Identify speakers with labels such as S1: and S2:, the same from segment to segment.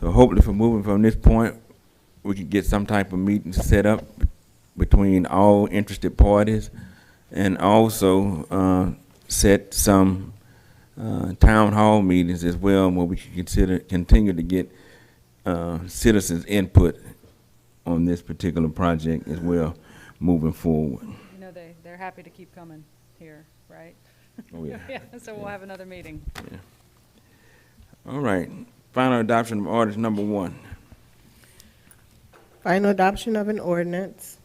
S1: So hopefully for moving from this point, we can get some type of meeting set up between all interested parties and also, uh, set some, uh, town hall meetings as well where we can consider, continue to get, uh, citizens' input on this particular project as well, moving forward.
S2: You know, they, they're happy to keep coming here, right?
S1: Oh, yeah.
S2: so we'll have another meeting.
S1: All right, final adoption of orders number one.
S3: Final adoption of an ordinance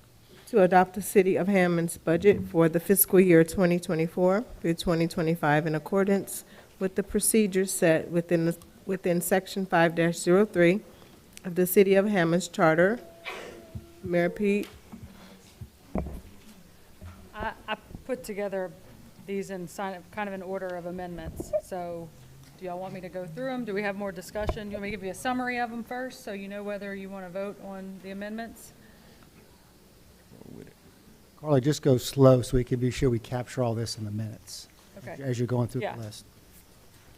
S3: to adopt the City of Hammond's budget for the fiscal year 2024 through 2025 in accordance with the procedures set within, the- within Section 5-03 of the City of Hammond's Charter. Mayor Pete,
S2: I, I put together these in sign of, kind of an order of amendments, so do y'all want me to go through them? Do we have more discussion? Do you want me to give you a summary of them first, so you know whether you want to vote on the amendments?
S4: Carly, just go slow so we can be sure we capture all this in the minutes
S2: Okay,
S4: as you're going through
S2: Yeah.
S4: the list.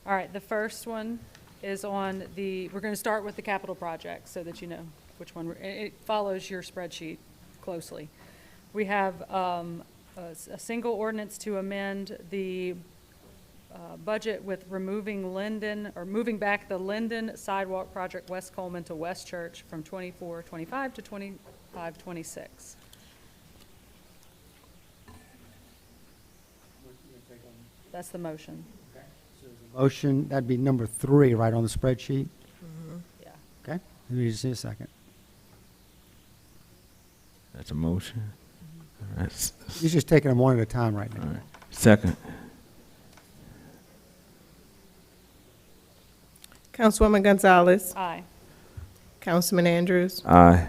S2: all right, the first one is on the, we're going to start with the capital project, so that you know which one, we're- it, it follows your spreadsheet closely. We have, um, a, s- a single ordinance to amend the uh, budget with removing Linden, or moving back the Linden Sidewalk Project West Coleman to West Church from twenty-four, twenty-five to twenty-five, twenty-six. That's the motion,
S4: Motion, that'd be number three, right, on the spreadsheet?
S2: yeah.
S4: Okay, let me just see a second.
S1: That's a motion. All right, s-
S4: He's just taking them one at a time right
S1: all
S4: now.
S1: right. Second,
S3: Councilwoman Gonzalez,
S2: Aye.
S3: Councilman Andrews,
S1: aye.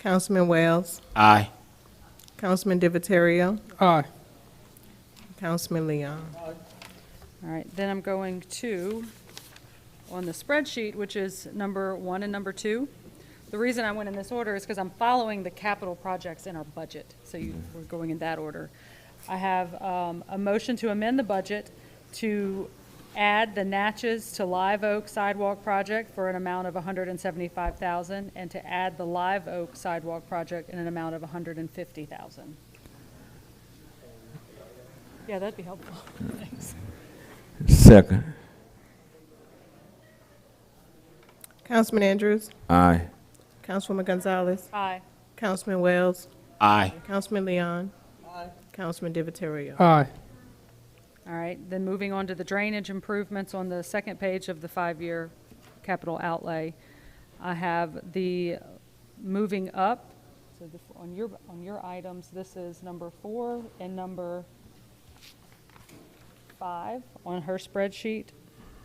S3: Councilman Wales,
S5: Aye.
S3: Councilman Divatario,
S4: Aye.
S3: Councilman Leon.
S2: All right, then I'm going to, on the spreadsheet, which is number one and number two. The reason I went in this order is because I'm following the capital projects in our budget, so you, we're going in that order. I have um, a motion to amend the budget to add the Natchez to Live Oak Sidewalk Project for an amount of 175,000, and to add the Live Oak Sidewalk Project in an amount of 150,000. Yeah, that'd be helpful. Thanks.
S1: Second,
S3: Councilman Andrews,
S1: aye.
S3: Councilwoman Gonzalez,
S2: Aye.
S3: Councilman Wales,
S5: Aye.
S3: Councilman Leon, Councilman Divatario.
S4: Aye.
S2: All right, then moving on to the drainage improvements on the second page of the five-year capital outlay. I have the moving up, so the- on your, on your items, this is number four and number five on her spreadsheet.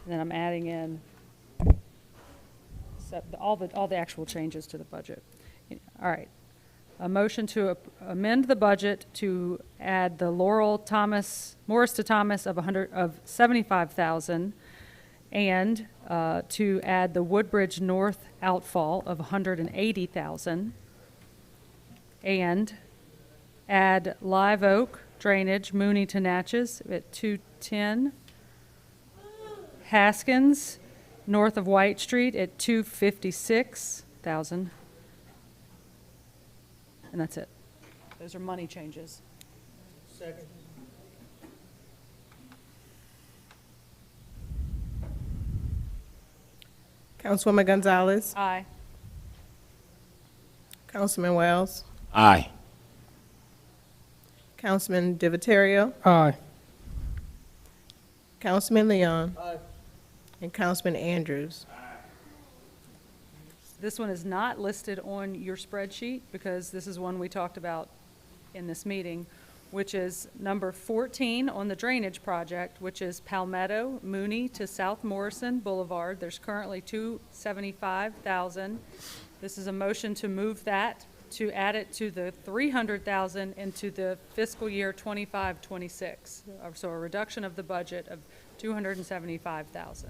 S2: And then I'm adding in so- all the, all the actual changes to the budget. All right, a motion to ap- amend the budget to add the Laurel Thomas, Morris to Thomas of 100, of 75,000, and uh, to add the Woodbridge North outfall of 180,000, and add Live Oak Drainage, Mooney to Natchez at 210, Haskins, north of White Street at 256,000, and that's it. Those are money changes.
S3: Councilwoman Gonzalez,
S2: Aye.
S3: Councilman Wells,
S5: Aye.
S3: Councilman Divatario,
S4: Aye.
S3: Councilman Leon, and Councilman Andrews.
S2: This one is not listed on your spreadsheet because this is one we talked about in this meeting, which is number 14 on the drainage project, which is Palmetto, Mooney to South Morrison Boulevard. There's currently 275,000. This is a motion to move that, to add it to the 300,000 into the fiscal year 25, 26. Uh, So a reduction of the budget of 275,000.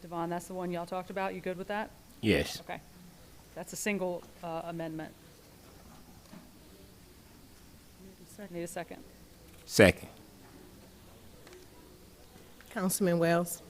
S2: Devon, that's the one y'all talked about. You good with that?
S5: Yes.
S2: Okay. That's a single uh, amendment. Need a second.
S5: Second.
S3: Councilman Wells,